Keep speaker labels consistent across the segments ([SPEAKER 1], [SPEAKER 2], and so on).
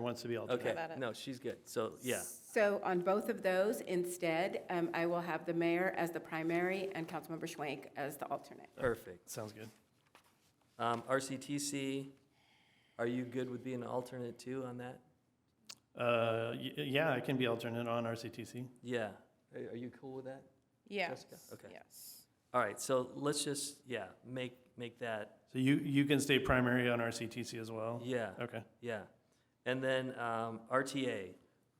[SPEAKER 1] wants to be alternate.
[SPEAKER 2] Okay,
[SPEAKER 3] about it.
[SPEAKER 2] no, she's good. So, yeah,
[SPEAKER 4] So on both of those, instead, um, I will have the mayor as the primary and Councilmember Schwank as the alternate.
[SPEAKER 2] perfect.
[SPEAKER 1] Sounds good.
[SPEAKER 2] Um, RCTC, are you good with being an alternate too on that?
[SPEAKER 1] Uh, y- Yeah, I can be alternate on RCTC.
[SPEAKER 2] Yeah. Are are you cool with that?
[SPEAKER 3] Yes,
[SPEAKER 2] Jessica? Okay.
[SPEAKER 3] yes.
[SPEAKER 2] All right, so let's just, yeah, make, make that,
[SPEAKER 1] So you, you can stay primary on RCTC as well?
[SPEAKER 2] yeah,
[SPEAKER 1] Okay.
[SPEAKER 2] yeah. And then, um, RTA,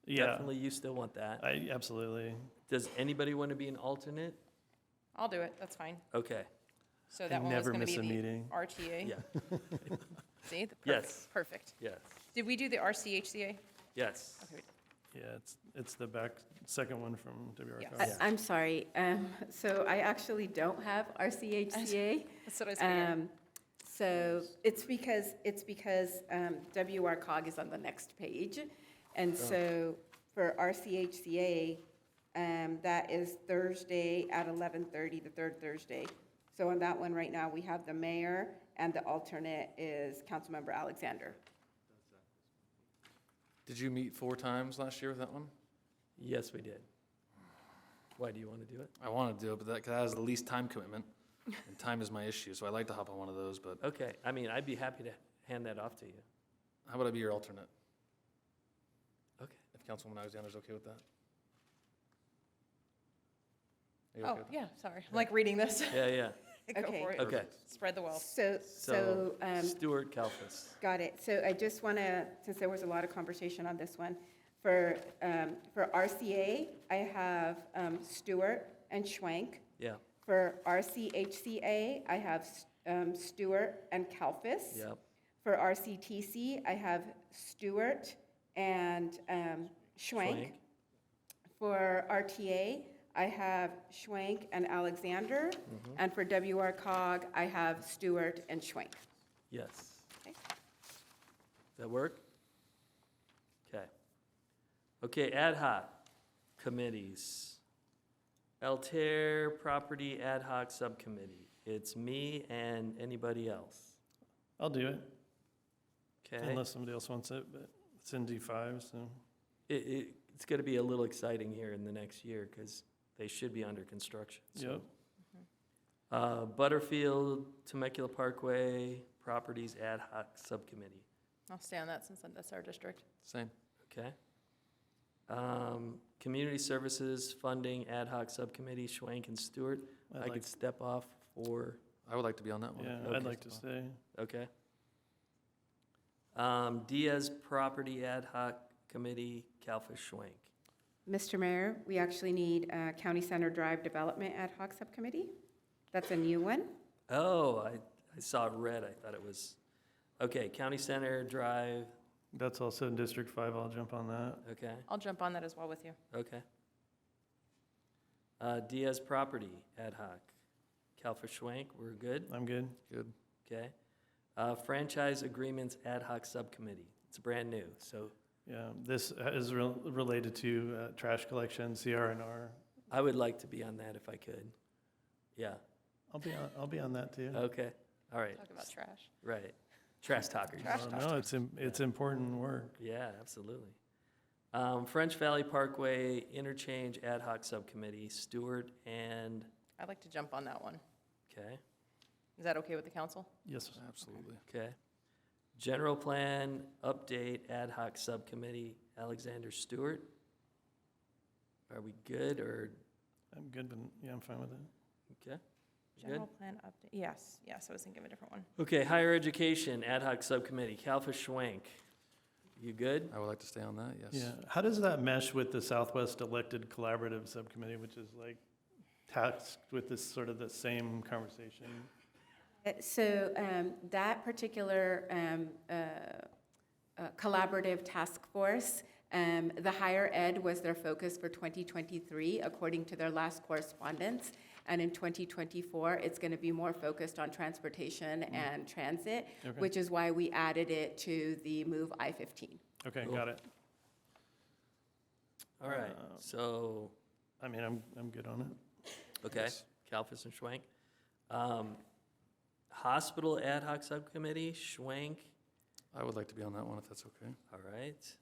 [SPEAKER 1] Yeah,
[SPEAKER 2] definitely you still want that.
[SPEAKER 1] I, absolutely.
[SPEAKER 2] Does anybody want to be an alternate?
[SPEAKER 3] I'll do it, that's fine.
[SPEAKER 2] Okay,
[SPEAKER 3] So
[SPEAKER 1] I
[SPEAKER 3] that one was
[SPEAKER 1] never
[SPEAKER 3] gonna
[SPEAKER 1] miss
[SPEAKER 3] be
[SPEAKER 1] a
[SPEAKER 3] the
[SPEAKER 1] meeting.
[SPEAKER 3] RTA.
[SPEAKER 2] yeah,
[SPEAKER 3] See, the perfect,
[SPEAKER 2] Yes.
[SPEAKER 3] perfect.
[SPEAKER 2] yes,
[SPEAKER 3] Did we do the RCHCA?
[SPEAKER 2] yes.
[SPEAKER 3] Okay.
[SPEAKER 1] Yeah, it's, it's the back, second one from
[SPEAKER 4] I-
[SPEAKER 1] WRCO.
[SPEAKER 3] Yes.
[SPEAKER 4] I'm sorry, um, so I actually don't have RCHCA.
[SPEAKER 3] That's what I was figuring.
[SPEAKER 4] Um, So it's because, it's because um, WRCOG is on the next page. And so for RCHCA, um, that is Thursday at 11:30, the third Thursday. So on that one right now, we have the mayor and the alternate is Councilmember Alexander.
[SPEAKER 5] Did you meet four times last year with that one?
[SPEAKER 2] Yes, we did. Why, do you want to do it?
[SPEAKER 5] I want to do it, but that, 'cause that has the least time commitment, and time is my issue, so I like to hop on one of those, but
[SPEAKER 2] Okay, I mean, I'd be happy to hand that off to you.
[SPEAKER 5] how about I be your alternate?
[SPEAKER 2] Okay.
[SPEAKER 5] If Councilwoman Alexander's okay with that? Are you okay
[SPEAKER 3] Oh,
[SPEAKER 5] with that?
[SPEAKER 3] yeah, sorry. I'm like reading this.
[SPEAKER 2] Yeah, yeah,
[SPEAKER 3] Go
[SPEAKER 4] Okay.
[SPEAKER 3] for it.
[SPEAKER 2] okay.
[SPEAKER 3] Spread the wealth.
[SPEAKER 4] So, so.
[SPEAKER 2] So
[SPEAKER 4] um,
[SPEAKER 2] Stuart Kalfas.
[SPEAKER 4] Got it. So I just want to, since there was a lot of conversation on this one, for, um, for RCA, I have um, Stewart and Schwank.
[SPEAKER 2] Yeah,
[SPEAKER 4] For RCHCA, I have um, Stewart and Kalfis.
[SPEAKER 2] yep,
[SPEAKER 4] For RCTC, I have Stewart and um, Schwank.
[SPEAKER 2] Schwank.
[SPEAKER 4] For RTA, I have Schwank and Alexander.
[SPEAKER 2] Mm-hmm.
[SPEAKER 4] And for WRCOG, I have Stewart and Schwank.
[SPEAKER 2] yes.
[SPEAKER 4] Okay.
[SPEAKER 2] That work? Okay. Okay, ad hoc committees. Altair Property Ad Hoc Subcommittee. It's me and anybody else.
[SPEAKER 1] I'll do it,
[SPEAKER 2] Okay?
[SPEAKER 1] unless somebody else wants it, but it's in D5, so.
[SPEAKER 2] It, it, it's gonna be a little exciting here in the next year, because they should be under construction, so.
[SPEAKER 1] Yep.
[SPEAKER 2] Uh, Butterfield, Temecula Parkway Properties Ad Hoc Subcommittee,
[SPEAKER 3] I'll stay on that since that's our district.
[SPEAKER 5] Same.
[SPEAKER 2] okay? Um, Community Services Funding Ad Hoc Subcommittee, Schwank and Stewart.
[SPEAKER 1] I'd
[SPEAKER 2] I
[SPEAKER 1] like-
[SPEAKER 2] could step off for,
[SPEAKER 5] I would like to be on that one.
[SPEAKER 1] Yeah,
[SPEAKER 2] Okay.
[SPEAKER 1] I'd like to stay.
[SPEAKER 2] okay? Um, Diaz Property Ad Hoc Committee, Kalfa Schwank.
[SPEAKER 4] Mr. Mayor, we actually need a County Center Drive Development Ad Hoc Subcommittee. That's a new one.
[SPEAKER 2] Oh, I, I saw it red, I thought it was, okay, County Center Drive,
[SPEAKER 1] That's also in District 5, I'll jump on that.
[SPEAKER 2] okay,
[SPEAKER 3] I'll jump on that as well with you.
[SPEAKER 2] okay. Uh, Diaz Property Ad Hoc, Kalfa Schwank, we're good,
[SPEAKER 1] I'm good.
[SPEAKER 5] Good.
[SPEAKER 2] okay. Uh, Franchise Agreements Ad Hoc Subcommittee, it's brand new, so
[SPEAKER 1] Yeah, this uh, is rel- related to uh, trash collection, CRNR.
[SPEAKER 2] I would like to be on that if I could. Yeah,
[SPEAKER 1] I'll be on, I'll be on that too.
[SPEAKER 2] okay, all right,
[SPEAKER 3] Talk about trash.
[SPEAKER 2] right. Trash talkers.
[SPEAKER 1] Uh, No, it's, im- it's important work.
[SPEAKER 2] Yeah, absolutely. Um, French Valley Parkway Interchange Ad Hoc Subcommittee, Stewart and,
[SPEAKER 3] I'd like to jump on that one.
[SPEAKER 2] okay,
[SPEAKER 3] Is that okay with the council?
[SPEAKER 1] Yes,
[SPEAKER 5] Absolutely.
[SPEAKER 2] okay. General Plan Update Ad Hoc Subcommittee, Alexander Stewart. Are we good or,
[SPEAKER 1] I'm good, but yeah, I'm fine with it.
[SPEAKER 2] okay? we Good?
[SPEAKER 3] General plan update, yes, yes, I was thinking of a different one.
[SPEAKER 2] Okay, Higher Education Ad Hoc Subcommittee, Kalfa Schwank. You good?
[SPEAKER 5] I would like to stay on that, yes.
[SPEAKER 1] Yeah, how does that mesh with the Southwest Elected Collaborative Subcommittee, which is like tasked with this sort of the same conversation?
[SPEAKER 4] Uh, So um, that particular um, uh, uh, collaborative task force, um, the higher ed was their focus for 2023, according to their last correspondence. And in 2024, it's going to be more focused on transportation and transit,
[SPEAKER 1] Okay.
[SPEAKER 4] which is why we added it to the Move I-15.
[SPEAKER 1] Okay,
[SPEAKER 2] Cool.
[SPEAKER 1] got it.
[SPEAKER 2] All right,
[SPEAKER 1] Uh,
[SPEAKER 2] so,
[SPEAKER 1] I mean, I'm, I'm good on it.
[SPEAKER 2] okay,
[SPEAKER 5] Yes.
[SPEAKER 2] Kalfas and Schwank. Um, Hospital Ad Hoc Subcommittee, Schwank
[SPEAKER 5] I would like to be on that one if that's okay.
[SPEAKER 2] All right.